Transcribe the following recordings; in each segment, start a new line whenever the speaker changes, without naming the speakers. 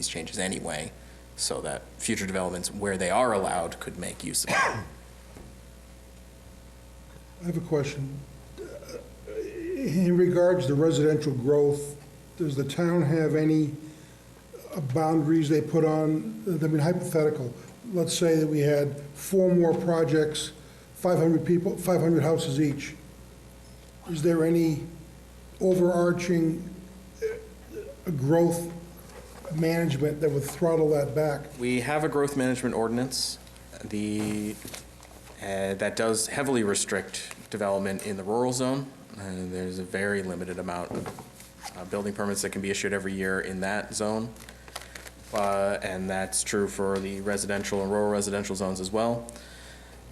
these changes anyway, so that future developments, where they are allowed, could make use of it.
I have a question. In regards to residential growth, does the town have any boundaries they put on, I mean hypothetical, let's say that we had four more projects, 500 people, 500 houses each. Is there any overarching uh, growth management that would throttle that back?
We have a growth management ordinance, the, uh, that does heavily restrict development in the rural zone. And there's a very limited amount of uh, building permits that can be issued every year in that zone. Uh, And that's true for the residential and rural residential zones as well.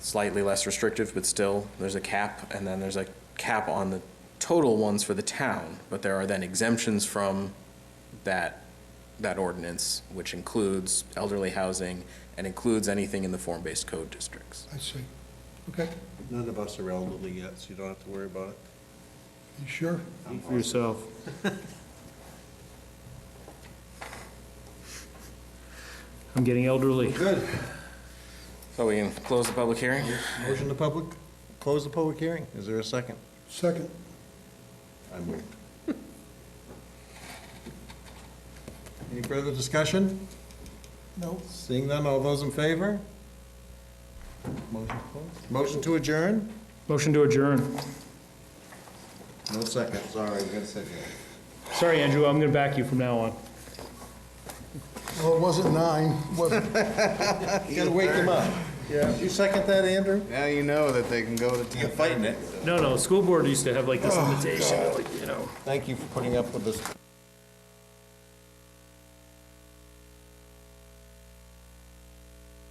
Slightly less restrictive, but still, there's a cap, and then there's a cap on the total ones for the town. But there are then exemptions from that, that ordinance, which includes elderly housing and includes anything in the form-based code districts.
I see. Okay,
None of us are elderly yet, so you don't have to worry about it.
you sure?
For yourself. I'm getting elderly.
Good.
So we can close the public hearing?
Motion to public, close the public hearing. Is there a second?
Second,
I moved. Any further discussion?
no?
Seeing none, all those in favor? Motion closed. Motion to adjourn?
Motion to adjourn.
No second, sorry, we gotta second.
Sorry, Andrew, I'm gonna back you from now on.
Well, it wasn't nine, was it?
You gotta wake them up. Yeah. You second that, Andrew?
Now you know that they can go to.
You're fighting it.
Oh, No, no, school board used to have like this invitation, like, you know.
Thank you for putting up with us.